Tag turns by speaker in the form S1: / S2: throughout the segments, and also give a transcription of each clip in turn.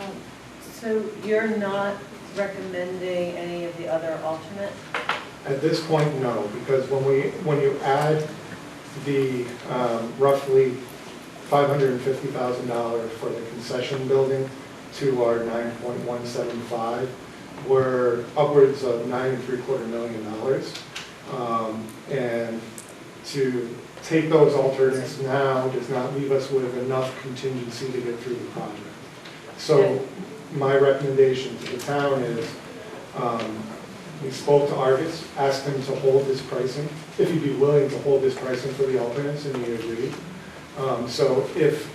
S1: Um, So you're not recommending any of the other alternate?
S2: At this point, no, because when we, when you add the um, roughly $550,000 for the concession building to our 9.175, we're upwards of nine and three quarter million dollars. Um, And to take those alternates now does not leave us with enough contingency to get through the project. So my recommendation to the town is, um, we spoke to Argus, asked him to hold his pricing, if he'd be willing to hold his pricing for the alternates, and he agreed. Um, So if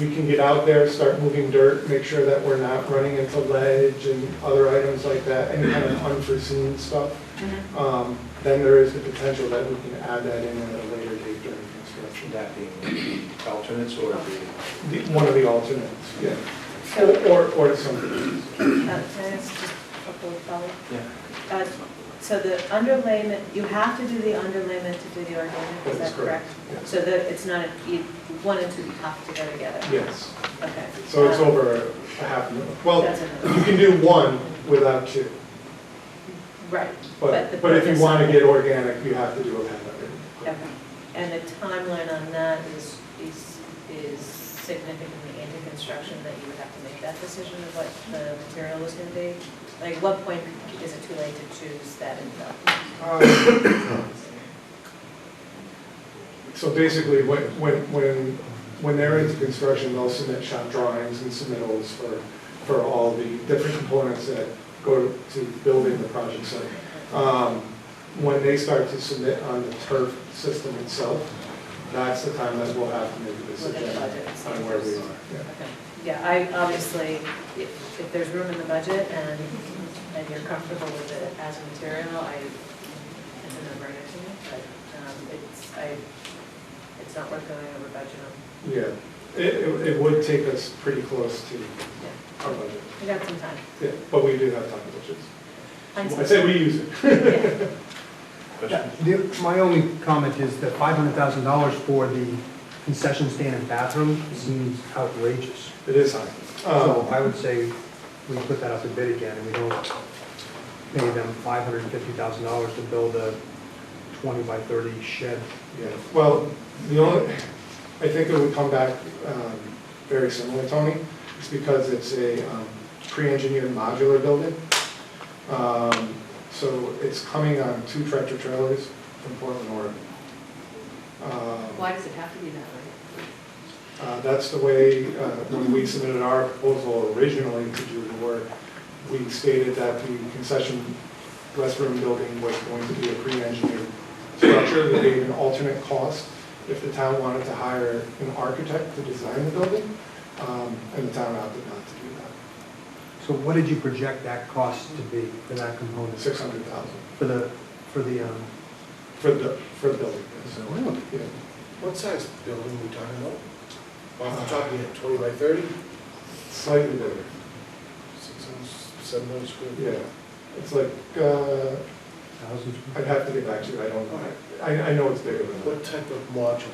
S2: we can get out there, start moving dirt, make sure that we're not running into ledge and other items like that, any kind of unforeseen stuff, um, then there is the potential that we can add that in at a later date during construction.
S3: That being the alternates or the,
S2: The- One of the alternates, yeah. Or, or- or something.
S1: Uh, Can I ask just a couple of follow-up?
S3: yeah,
S1: Uh, So the underlayment, you have to do the underlayment to do the organic, is
S2: That's
S1: that correct?
S2: correct, yes.
S1: So that it's not, a- you- one and two have to go together?
S2: Yes.
S1: Okay.
S2: So it's
S1: Um,
S2: over a half million. Well,
S1: That's
S2: you
S1: another-
S2: can do one without two.
S1: Right. the
S2: But, but if you
S1: purpose
S2: want
S1: of
S2: to
S1: it-
S2: get organic, you have to do a half of
S1: Okay. And the timeline on that is, is, is significantly into construction, that you would have to make that decision of what the material is gonna be? Like, what point is it too late to choose that and not?
S2: it. Um, So basically, when, when, when, when they're into construction, they'll submit shop drawings and submittals for, for all the different components that go to building the project site. Um, When they start to submit on the turf system itself, that's the time that we'll have to make a
S1: Look at
S2: decision
S1: the budget. and see
S2: on where we
S1: first.
S2: are. Yeah.
S1: Okay. Yeah, I, obviously, if, if there's room in the budget and, and you're comfortable with it as a material, I, it's a no-brainer to me, but, um, it's, I, it's not worth going over budget on.
S2: Yeah, it, it it would take us pretty close to
S1: Yeah.
S2: our budget,
S1: We got some time.
S2: yeah, but we do have time, which is, I
S1: Hindsight's-
S2: say we use it.
S1: Yeah.
S3: question?
S4: The- My only comment is that five hundred thousand dollars for the concession stand and bathroom seems outrageous.
S2: It is high.
S4: So
S2: Um,
S4: I would say we put that up to bid again, and we don't pay them five hundred and fifty thousand dollars to build a twenty by thirty shed.
S2: yeah, well, the only, I think it would come back um, very similar, Tony, it's because it's a um, pre-engineered modular building. Um, So it's coming on two tractor trailers from Portland, Oregon. Um,
S5: Why does it have to be that way?
S2: Uh, That's the way, uh, when we submitted our proposal originally to do the work, we stated that the concession restroom building was going to be a pre-engineered structure that gave an alternate cost if the town wanted to hire an architect to design the building, um, and the town opted not to do that.
S4: So what did you project that cost to be for that component?
S2: Six hundred thousand
S4: For the, for the, um,
S2: for the, for the building. yes. Yeah.
S6: What size building are we talking about? Off the top, you had twenty by thirty,
S2: Slightly bigger,
S6: six hundred, seven hundred square feet.
S2: yeah. It's like, uh,
S4: thousands?
S2: I'd have to get back to you, I don't, I, I know it's bigger than that.
S6: What type of modular?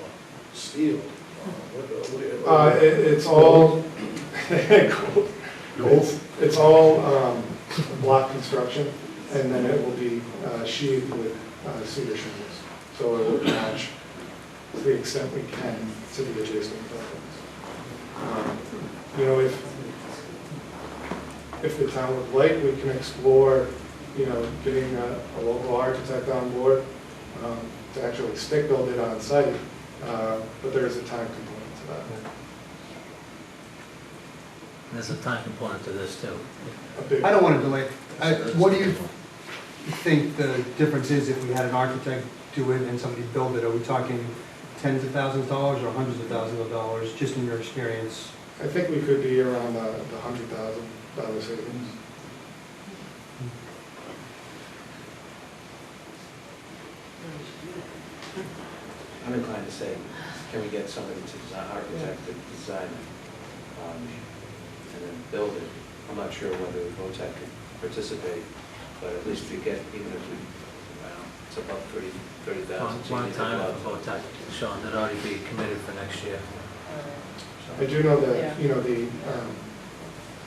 S6: Steel? Uh, what- what-
S2: Uh, it, it's all, gold. It's, it's all, um, block construction, and then it will be uh, sheathed with uh, cedar shingles. So it will match to the extent we can to the adjacent buildings. Um, You know, if, if the town would like, we can explore, you know, getting a, a local architect on board, um, to actually stick build it on site, uh, but there is a time component to that.
S7: There's a time component to this too.
S2: A big-
S4: I don't want to delay. it. I- What do you think the difference is if we had an architect do it and somebody build it? Are we talking tens of thousands of dollars or hundreds of thousands of dollars, just in your experience?
S2: I think we could be around uh, the hundred thousand dollar savings.
S1: 嗯
S3: I'm inclined to say, can we get somebody to design, architect to design, um, and then build it? I'm not sure whether VOTEC could participate, but at least we get, even if we, well, it's about thirty, thirty
S7: One
S3: thousand.
S7: one time at the hotel, Sean, that already be committed for next year.
S1: Uh,
S2: I do know that, you know, the um,